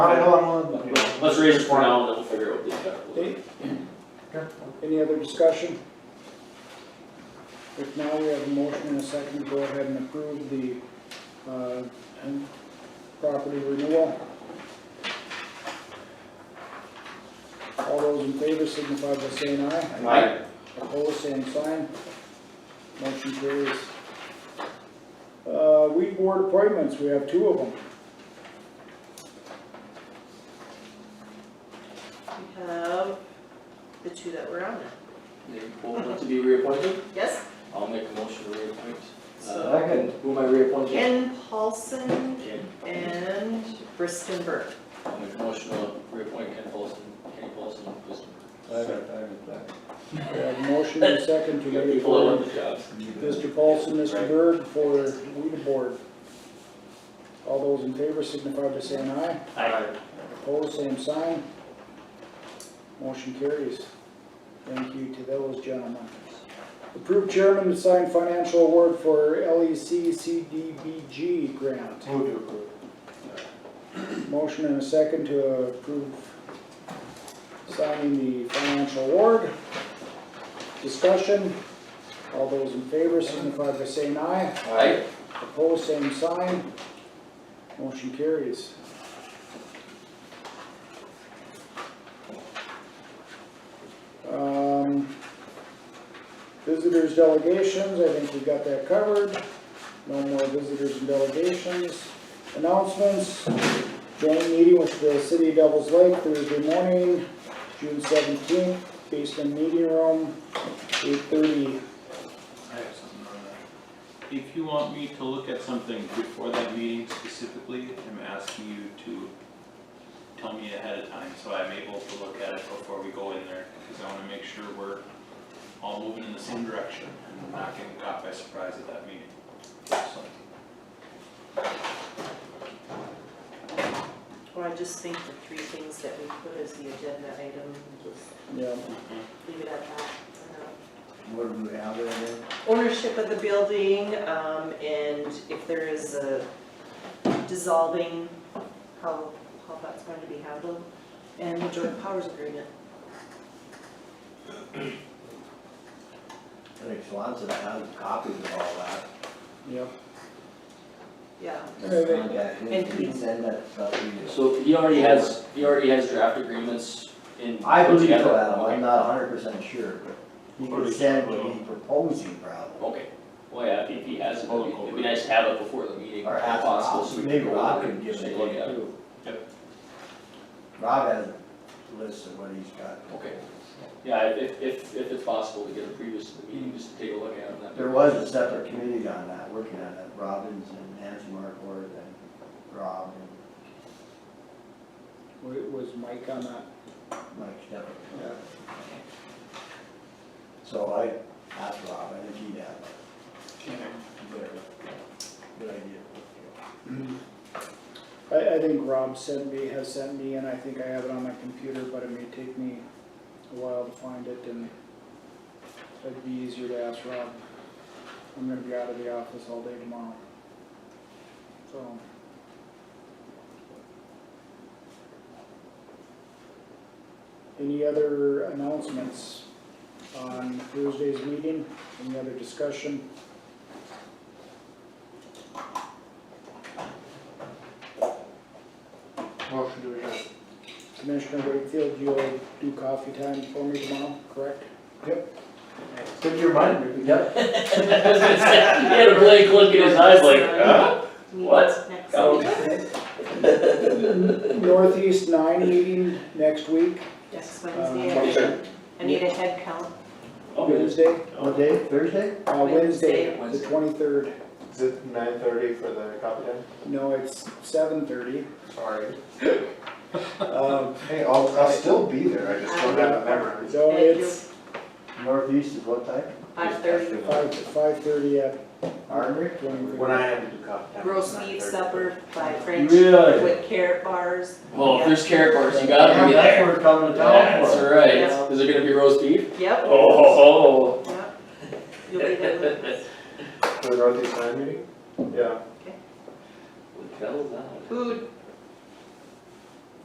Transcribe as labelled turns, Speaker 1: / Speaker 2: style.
Speaker 1: Not at all, I'm on.
Speaker 2: Let's raise it for now, and then we'll figure out what the impact will be.
Speaker 1: Any other discussion? If now we have a motion and a second, to go ahead and approve the, uh, and property renewal. All those in favor signify by saying aye.
Speaker 2: Aye.
Speaker 1: Opposed, same sign. Motion carries. Uh, weed board appointments, we have two of them.
Speaker 3: We have the two that were on it.
Speaker 2: They both want to be reappointed?
Speaker 3: Yes,
Speaker 2: I'll make a motion to reappoint.
Speaker 3: so
Speaker 2: Second. Who am Uh, I reappointing?
Speaker 3: Ken Paulson
Speaker 2: Ken.
Speaker 3: and Briston Burke.
Speaker 2: I'll make a motion to reappoint Ken Paulson, Kenny Paulson, just.
Speaker 1: We have a motion and a second to
Speaker 2: You got
Speaker 1: reappoint.
Speaker 2: people that want the jobs.
Speaker 1: Mr. Paulson, Mr. Bird for weed board. All those in favor signify by saying aye.
Speaker 2: Aye.
Speaker 1: Opposed, same sign. Motion carries. Thank you to those gentlemen. Approved chairman to sign financial award for E LEC CDBG grant.
Speaker 4: Move to approve.
Speaker 1: Motion and a second to approve signing the financial award. Discussion. All those in favor signify by saying aye.
Speaker 2: Aye.
Speaker 1: Opposed, same sign. Motion carries. Um, Visitors delegations, I think we've got that covered. No more visitors and delegations. Announcements, joint meeting with the City of Devils Lake Thursday morning, June seventeenth, basement meeting room, eight thirty.
Speaker 5: I have something on that. If you want me to look at something before that meeting specifically, I'm asking you to tell me ahead of time, so I'm able to look at it before we go in there, because I wanna make sure we're all moving in the same direction, and not getting caught by surprise at that meeting. So,
Speaker 3: Well, Oh, I just think the three things that we put as the agenda item, just
Speaker 1: Yeah,
Speaker 3: leave it at that. for now.
Speaker 4: What do we have there then?
Speaker 3: ownership of the building, um, and if there is a dissolving, how, how that's going to be handled, and the joint powers agreement.
Speaker 4: I think Swanson has copies of all that.
Speaker 1: yeah.
Speaker 3: Yeah,
Speaker 4: Just contact him,
Speaker 3: And
Speaker 4: he can
Speaker 3: he-
Speaker 4: send that stuff to you.
Speaker 2: So he already has, he already has draft agreements in.
Speaker 4: I
Speaker 2: put
Speaker 4: believe so,
Speaker 2: together?
Speaker 4: Adam,
Speaker 2: Okay.
Speaker 4: I'm not hundred percent sure, but he could send what he's proposing probably.
Speaker 2: Okay, well, yeah, if he has, it, it'd be- it'd be nice to have it before the meeting,
Speaker 4: Or
Speaker 2: if
Speaker 4: ask
Speaker 2: possible, so we
Speaker 4: Rob, maybe
Speaker 2: can go
Speaker 4: Rob
Speaker 2: over
Speaker 4: could
Speaker 2: and
Speaker 4: give
Speaker 2: just
Speaker 4: it
Speaker 2: take a
Speaker 4: to
Speaker 2: look at it.
Speaker 4: you. Rob has a list of what he's got.
Speaker 2: Okay. Yeah, if, if, if it's possible to get a previous to the meeting, just to take a look at it. that'd be-
Speaker 4: There was a separate committee on that, working on it, Robbins and Nancy Markford and Rob and
Speaker 1: Wa- Was Mike on that?
Speaker 4: Mike Stepp.
Speaker 1: Yeah.
Speaker 4: So I asked Rob, I think he'd have a better, good idea.
Speaker 1: I, I think Rob sent me, has sent me, and I think I have it on my computer, but it may take me a while to find it, and it'd be easier to ask Rob. I'm gonna be out of the office all day tomorrow. So. Any other announcements on Thursday's meeting? Any other discussion?
Speaker 4: Motion to
Speaker 1: Commissioner Wakefield, you'll do coffee time for me tomorrow, correct?
Speaker 4: Could you remind me? Yep.
Speaker 2: I was gonna say, He had a blank look in his eyes like, huh? What?
Speaker 3: Next
Speaker 2: Oh.
Speaker 3: week.
Speaker 1: Northeast nine meeting next week,
Speaker 3: Next
Speaker 1: Um,
Speaker 3: Wednesday, I need a head count.
Speaker 2: Okay.
Speaker 1: Wednesday,
Speaker 4: What day, Thursday?
Speaker 1: uh, Wednesday, the
Speaker 2: Wednesday.
Speaker 1: twenty-third.
Speaker 6: Is it nine thirty for the copy time?
Speaker 1: No, it's seven thirty.
Speaker 6: Sorry.
Speaker 1: Um,
Speaker 6: Hey, I'll, I'll still be there, I just don't have it memorized.
Speaker 1: so
Speaker 3: Thank
Speaker 1: it's
Speaker 4: Northeast is what time?
Speaker 3: Five thirty,
Speaker 1: five, five-thirty at
Speaker 4: Armory?
Speaker 1: twenty-three.
Speaker 6: When I have to do copy time.
Speaker 3: roast
Speaker 6: it's 9:30.
Speaker 3: beef supper by French
Speaker 4: Really?
Speaker 3: with carrot bars.
Speaker 2: Well, Oh, if there's carrot bars, you
Speaker 4: Yeah,
Speaker 2: gotta be
Speaker 4: That's
Speaker 2: there.
Speaker 4: what we're coming to town
Speaker 2: That's
Speaker 4: for.
Speaker 3: Yeah.
Speaker 2: right. Is it gonna be roast beef?
Speaker 3: Yep,
Speaker 2: Oh.
Speaker 3: yep. You'll be there with us.
Speaker 6: For the Northeast Nine meeting? Yeah.
Speaker 2: The devil's out.
Speaker 3: Food,